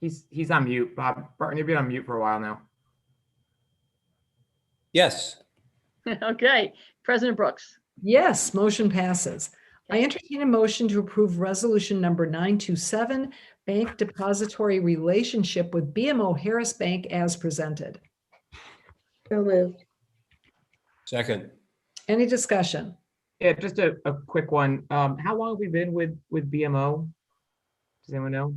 He's, he's on mute. Bob Barton, you've been on mute for a while now. Yes, Okay, President Brooks, Yes, motion passes. I entertain a motion to approve resolution number 927, bank depository relationship with BMO Harris Bank as presented. So moved. second. Any discussion? Yeah, just a, a quick one. Um, how long have we been with, with BMO? Does anyone know?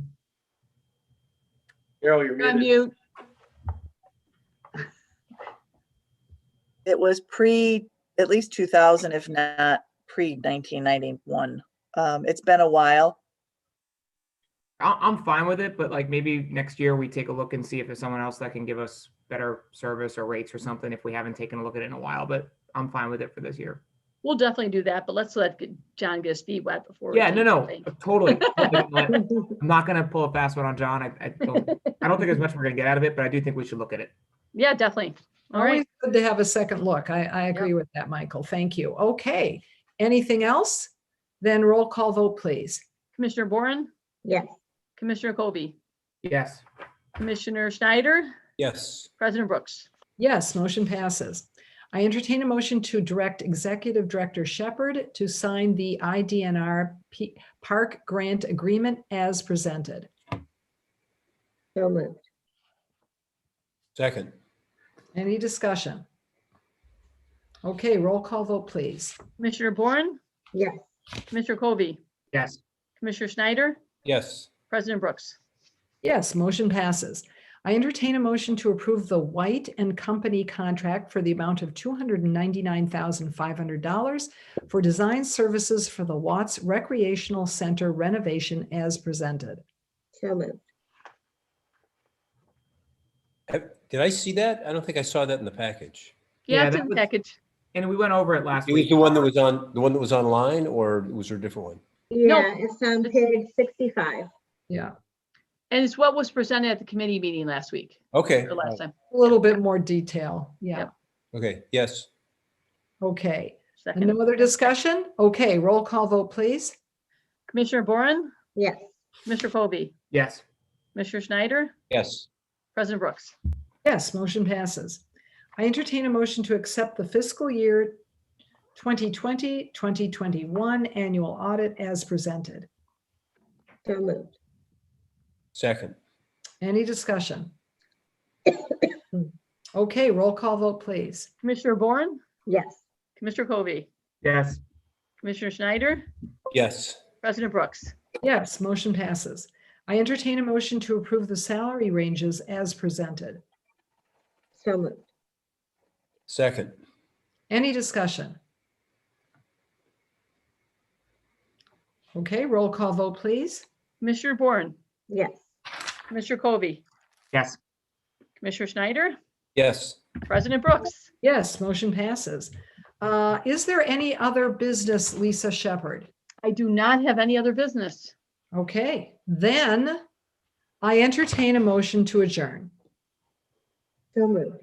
Carol, you're on muted. mute. It was pre, at least 2000, if not pre 1991. Um, It's been a while. I, I'm fine with it, but like maybe next year we take a look and see if there's someone else that can give us better service or rates or something if we haven't taken a look at it in a while, but I'm fine with it for this year. We'll definitely do that, but let's let John get his feet wet before. we Yeah, no, do no, anything. totally. totally not. I'm not gonna pull a fast one on John. I, I don't, I don't think there's much we're gonna get out of it, but I do think we should look at it. Yeah, definitely. All Always right, good to have a second look. I, I agree with that, Michael. Thank you. Okay. Anything else? Then roll call vote, please. Commissioner Boren, Yes. Commissioner Kobe, Yes, Commissioner Schneider, Yes, President Brooks. Yes, motion passes. I entertain a motion to direct Executive Director Shepherd to sign the IDNR P- Park Grant Agreement as presented. So moved. second. Any discussion? Okay, roll call vote, please. Commissioner Boren, Yes. Commissioner Kobe, yes, Commissioner Schneider, Yes, President Brooks. Yes, motion passes. I entertain a motion to approve the White and Company contract for the amount of $299,500 for design services for the Watts Recreational Center renovation as presented. So moved. Have- did I see that? I don't think I saw that in the package. Yeah, Yeah, it's that in the was- package. and we went over it last It was week. the one that was on, the one that was online, or was there a different one? No. Yeah, it's on page sixty-five. Yeah, And it's what was presented at the committee meeting last week, Okay, or last time. a little bit more detail. Yeah, Yep. okay, yes, okay. And Second, no other discussion? Okay, roll call vote, please. Commissioner Boren, Yes, Commissioner Kobe, Yes, Commissioner Schneider, yes, President Brooks. Yes, motion passes. I entertain a motion to accept the fiscal year 2020, 2021 annual audit as presented. so moved. second. Any discussion? Okay, roll call vote, please. Commissioner Boren, Yes, Commissioner Kobe, yes, Commissioner Schneider, Yes, President Brooks. Yes, motion passes. I entertain a motion to approve the salary ranges as presented. so moved. second. Any discussion? Okay, roll call vote, please. Commissioner Boren, Yes, Commissioner Kobe, yes, Commissioner Schneider, Yes, President Brooks. Yes, motion passes. Uh, Is there any other business, Lisa Shepherd? I do not have any other business. Okay, then I entertain a motion to adjourn. so moved.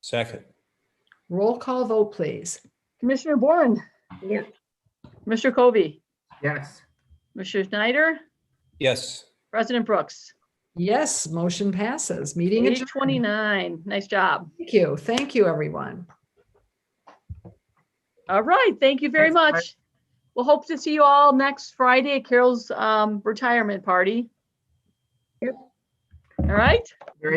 second. Roll call vote, please. Commissioner Boren, Yes, Commissioner Kobe, yes. Commissioner Schneider, Yes, President Brooks. Yes, motion passes. Meeting Eight adjourned. twenty-nine. Nice job. Thank you. Thank you, everyone. All right. Thank you very Thanks, Barb. much. We'll hope to see you all next Friday at Carol's um, retirement party. Yep. All right.